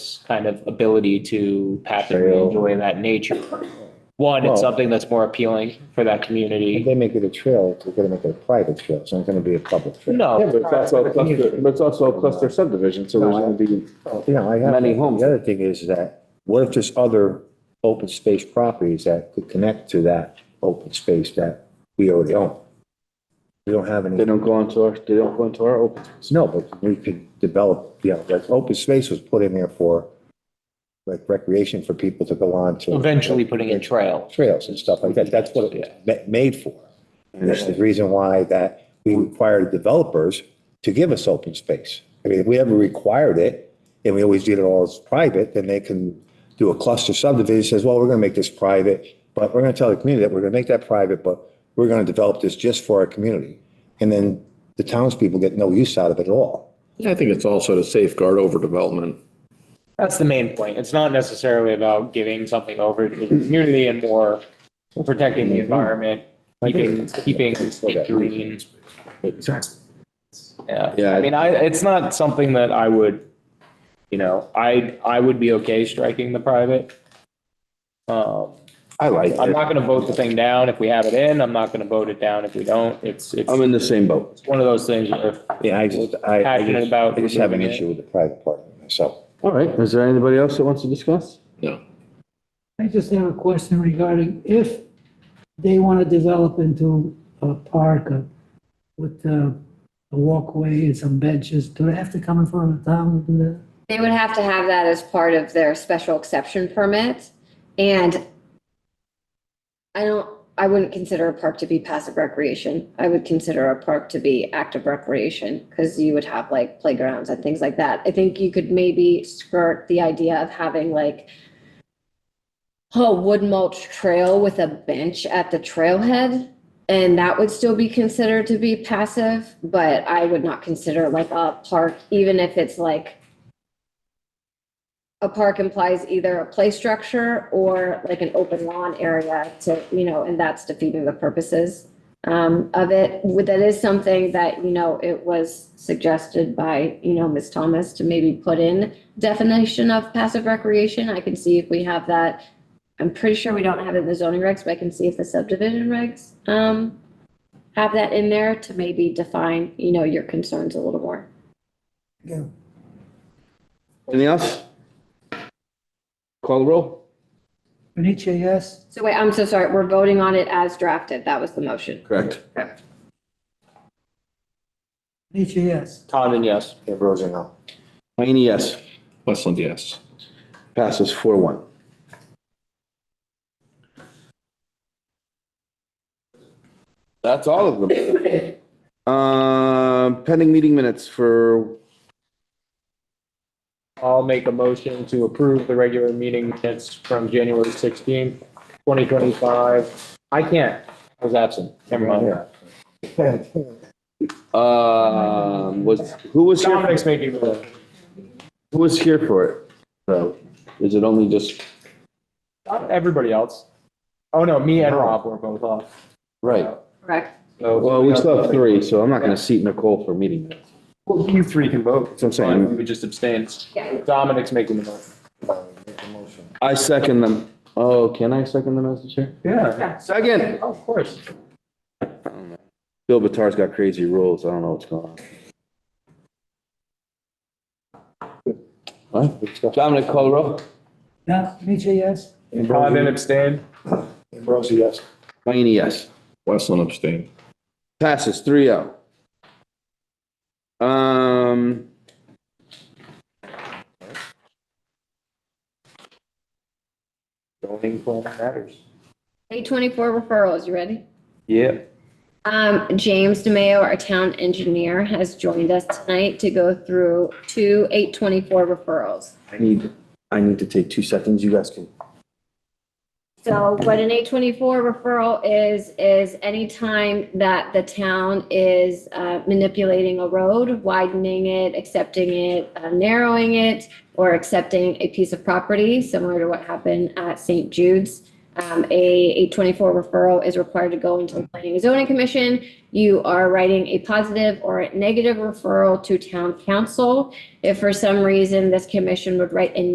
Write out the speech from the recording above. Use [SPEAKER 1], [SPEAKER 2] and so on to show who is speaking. [SPEAKER 1] kind of ability to pass and
[SPEAKER 2] Trail.
[SPEAKER 1] enjoy that nature. One,
[SPEAKER 2] Well-
[SPEAKER 1] it's something that's more appealing for that
[SPEAKER 2] If
[SPEAKER 1] community.
[SPEAKER 2] they make it a trail, they're gonna make it a private trail, it's not gonna be a public trail.
[SPEAKER 3] Yeah,
[SPEAKER 1] No,
[SPEAKER 3] but it's also a cluster, but it's also a cluster subdivision, so there's gonna be,
[SPEAKER 2] You know, I have.
[SPEAKER 3] Many homes.
[SPEAKER 2] The other thing is that, what if there's other open space properties that could connect to that open space that we already own? We don't have any.
[SPEAKER 3] they don't go into our, they don't go into our open.
[SPEAKER 2] No, but we could develop, you know, that open space was put in there for like recreation for people to go on to.
[SPEAKER 1] eventually putting in trails.
[SPEAKER 2] Trails and stuff like that. That's what it was ma- made for. And that's the reason why that we required developers to give us open space. I mean, if we ever required it and we always did it all as private, then they can do a cluster subdivision, says, well, we're going to make this private, but we're going to tell the community that we're going to make that private, but we're going to develop this just for our community. And then the townspeople get no use out of it at all.
[SPEAKER 4] I think it's also to safeguard overdevelopment.
[SPEAKER 1] That's the main point. It's not necessarily about giving something over to the community and more protecting the environment, keeping, keeping it green. Yeah,
[SPEAKER 3] Yeah.
[SPEAKER 1] I mean, I, it's not something that I would, you know, I, I would be okay striking the private. Um,
[SPEAKER 3] I like
[SPEAKER 1] I'm not gonna vote the thing down if we have it in, I'm not gonna vote it down if we don't, it's, it's
[SPEAKER 3] I'm in the same boat.
[SPEAKER 1] one of those things where
[SPEAKER 2] Yeah, I just, I, I
[SPEAKER 1] Passionate
[SPEAKER 2] just,
[SPEAKER 1] about
[SPEAKER 2] I just have an
[SPEAKER 1] removing it.
[SPEAKER 2] issue with the private part of it myself.
[SPEAKER 3] All right, is there anybody else that wants to discuss?
[SPEAKER 4] No.
[SPEAKER 5] I just have a question regarding if they want to develop into a park uh, with uh, a walkway and some benches, do they have to come in front of the town? and, uh,
[SPEAKER 6] They would have to have that as part of their special exception permit. And I don't, I wouldn't consider a park to be passive recreation. I would consider a park to be active recreation because you would have like playgrounds and things like that. I think you could maybe skirt the idea of having like a wood mulch trail with a bench at the trailhead. And that would still be considered to be passive, but I would not consider like a park, even if it's like a park implies either a play structure or like an open lawn area to, you know, and that's defeating the purposes um, of it. Would- That is something that, you know, it was suggested by, you know, Ms. Thomas to maybe put in definition of passive recreation. I can see if we have that. I'm pretty sure we don't have it in the zoning regs, but I can see if the subdivision regs um, have that in there to maybe define, you know, your concerns a little more.
[SPEAKER 3] Anything else? Call the roll?
[SPEAKER 5] Benicia, yes?
[SPEAKER 6] So wait, I'm so sorry. We're voting on it as drafted. That was the motion.
[SPEAKER 3] Correct.
[SPEAKER 5] Benicia, yes.
[SPEAKER 1] Condon, yes.
[SPEAKER 2] Ambrosio, no.
[SPEAKER 3] Mayne, yes.
[SPEAKER 4] Westland, yes.
[SPEAKER 3] Passes four one. That's all of them. Um, pending meeting minutes for,
[SPEAKER 1] I'll make a motion to approve the regular meeting minutes from January sixteenth, twenty twenty-five. I can't, I was absent, never mind.
[SPEAKER 3] um, was, who was here,
[SPEAKER 1] Dominic's making the,
[SPEAKER 3] who was here for it? So, is it only just,
[SPEAKER 1] not everybody else. Oh, no, me and Rob were both off.
[SPEAKER 3] right?
[SPEAKER 6] Correct?
[SPEAKER 1] So-
[SPEAKER 3] Well, we still have three, so I'm not gonna seat Nicole for meeting minutes.
[SPEAKER 1] Well, you three can vote.
[SPEAKER 3] That's what I'm saying.
[SPEAKER 1] We would just abstain.
[SPEAKER 6] Yeah.
[SPEAKER 1] Dominic's making the motion.
[SPEAKER 3] I second them. Oh, can I second them as the chair?
[SPEAKER 1] Yeah.
[SPEAKER 3] Second.
[SPEAKER 1] Oh, Of course.
[SPEAKER 3] Bill Batar's got crazy rules. I don't know what's going on. What? Dominic Colro,
[SPEAKER 5] Yeah, Benicia, yes?
[SPEAKER 1] Condon abstained.
[SPEAKER 2] Ambrosio, yes.
[SPEAKER 3] Mayne, yes.
[SPEAKER 4] Westland abstained.
[SPEAKER 3] Passes three oh. Um.
[SPEAKER 1] Zoning form matters.
[SPEAKER 6] Eight twenty-four referrals, you ready?
[SPEAKER 3] Yeah.
[SPEAKER 6] Um, James DeMayo, our town engineer, has joined us tonight to go through two eight twenty-four referrals.
[SPEAKER 7] I need, I need to take two seconds. You guys can
[SPEAKER 6] So what an eight twenty-four referral is, is any time that the town is uh, manipulating a road, widening it, accepting it, uh, narrowing it, or accepting a piece of property, similar to what happened at St. Jude's. Um, a eight twenty-four referral is required to go into the planning and zoning commission. You are writing a positive or a negative referral to town council. If for some reason this commission would write a